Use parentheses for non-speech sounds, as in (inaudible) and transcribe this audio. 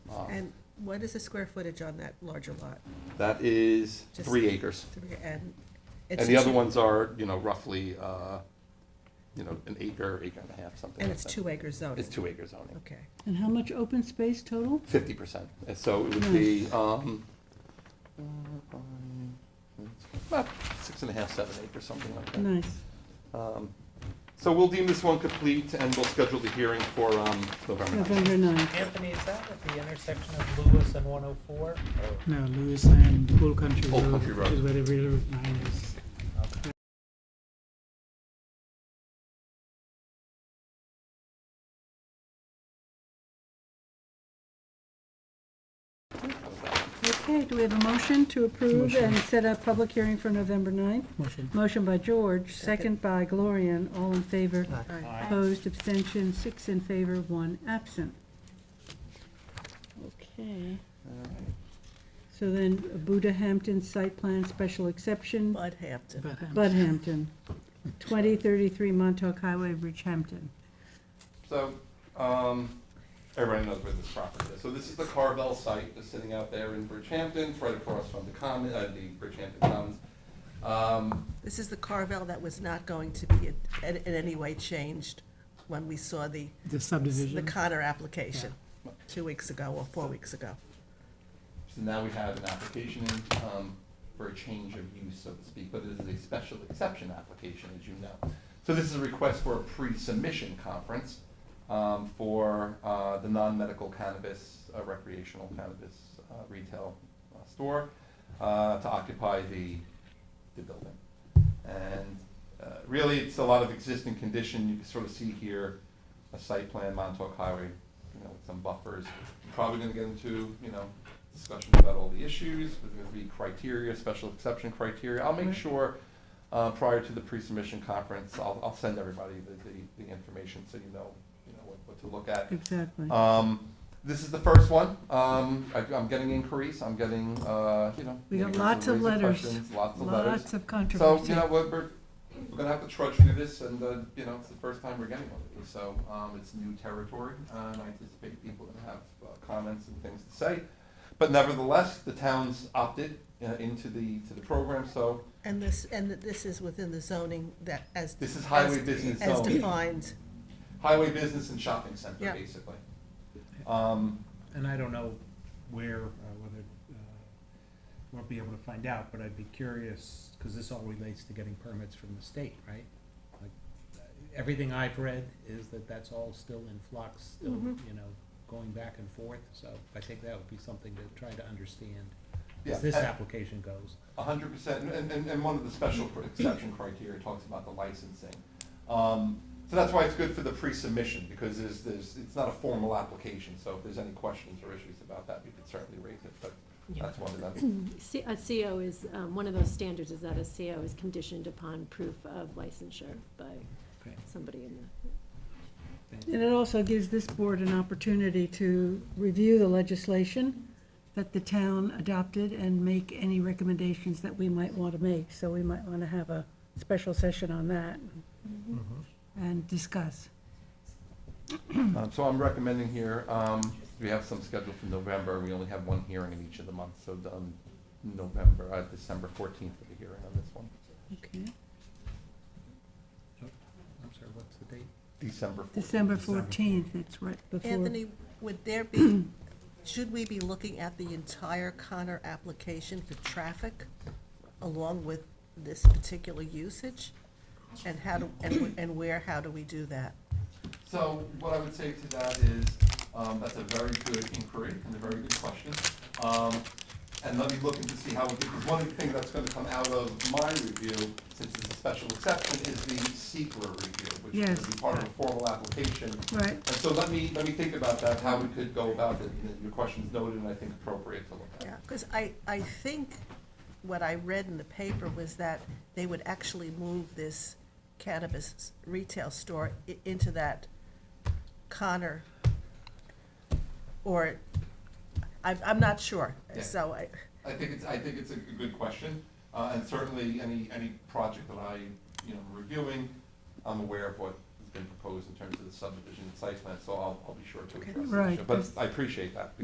Ah. what is the square footage on that larger lot? That is Just- three acres. Three- And. it's And the other two- ones are, you know, roughly, uh, you know, an acre, acre and a half, something And like it's that. two acre zoning? It's two acre zoning, Okay, And how much open space total? fifty percent. And so it Hmm. would be, um, about six and a half, seven acres, something like that. Nice. Um, So we'll deem this one complete and we'll schedule the hearing for, um, November ninth. November ninth. Anthony, is that at the intersection of Lewis and 104? No, Lewis and Old Country Old Road Country Road. is where the real Route 9 is. Okay, do we have a motion to approve and set a public hearing for November ninth? Motion. Motion by George, second by Gloria, all in favor. Aye. Opposed, abstention, six in favor, one absent. Okay, so then Buddha Hampton Site Plan Special Exception, Bud Hampton. But, um, Bud Hampton, 2033 Montauk Highway, Bridgehampton. So, um, everybody knows where this property is. So this is the Carvel site, that's sitting out there in Bridgehampton, it's right across from the common, uh, the Bridgehampton Commons. Um, This is the Carvel that was not going to be in, in any way changed when we saw the, The the subdivision. Connor application two weeks ago or four weeks ago. So now we have an application in, um, for a change of use, so to speak, but this is a special exception application, as you know. So this is a request for a pre-submission conference um, for uh, the non-medical cannabis, uh, recreational cannabis uh, retail uh, store uh, to occupy the, the building. And uh, really, it's a lot of existing condition, you can sort of see here, a site plan, Montauk Highway, you know, with some buffers. Probably gonna get into, you know, discussion about all the issues, there's gonna be criteria, special exception criteria. I'll Mm-hmm. make sure, uh, prior to the pre-submission conference, I'll, I'll send everybody the, the, the information so you know, you know, what, what to look at. Exactly. Um, this is the first one. Um, I, I'm getting inquiries. I'm getting, uh, you know. We got neighbors lots of raising letters. questions, Lots of letters. Lots of So, you controversy. know, we're, we're, we're gonna have to trudge through this and, uh, you know, it's the first time we're getting one of these. So, um, it's new territory uh, and I anticipate people are gonna have uh, comments and things to say. But nevertheless, the town's opted uh, into the, to the program, so And this, and this is within the zoning that as. this is highway as- business zone. As defined, Highway business and shopping center, Yeah. basically. Um, And I don't know where, uh, whether, uh, won't be able to find out, but I'd be curious, because this all relates to getting permits from the state, right? Like uh, Everything I've read is that that's all still in flux, still, you know, going back and forth, so I think that would be something to try to understand Yeah, as this and- application goes. A hundred percent, and, and, and one of the special cr- exception criteria talks about the licensing. Um, so that's why it's good for the pre-submission, because there's, there's, it's not a formal application, so if there's any questions or issues about that, we could certainly raise it, but that's one of them. C- A CO is, um, one of those standards is that a CO is conditioned upon proof of licensure by Okay. somebody in the And it also gives this board an opportunity to review the legislation that the town adopted and make any recommendations that we might want to make. So we might want to have a special session on that and discuss. Um, so I'm recommending here, um, we have some scheduled for November, we only have one hearing in each of the months, so, um, November, uh, December fourteenth for the hearing on this one, Okay. I'm sorry, what's the date? December fourteenth. December 14th, it's right before. Anthony, would there be, (clears throat) should we be looking at the entire Connor application for traffic along with this particular usage? And how do, and, wh- and where, how do we do that? So what I would say to that is, um, that's a very good inquiry and a very good question. Um, and let me look into see how, because one of the things that's gonna come out of my review, since it's a special exception, is the secret review, which is Yes. gonna be part of a formal application. Right, And so let me, let me think about that, how we could go about it, and your question's noted and I think appropriate to look at. Yeah, because I, I think what I read in the paper was that they would actually move this cannabis retail store i- into that Connor, or, I'm, I'm not sure, Yeah. so I, I think it's, I think it's a g- good question, uh, and certainly any, any project that I, you know, reviewing, I'm aware of what has been proposed in terms of the subdivision and site plan, so I'll, I'll be sure to Okay. address the Right, issue. But I appreciate that,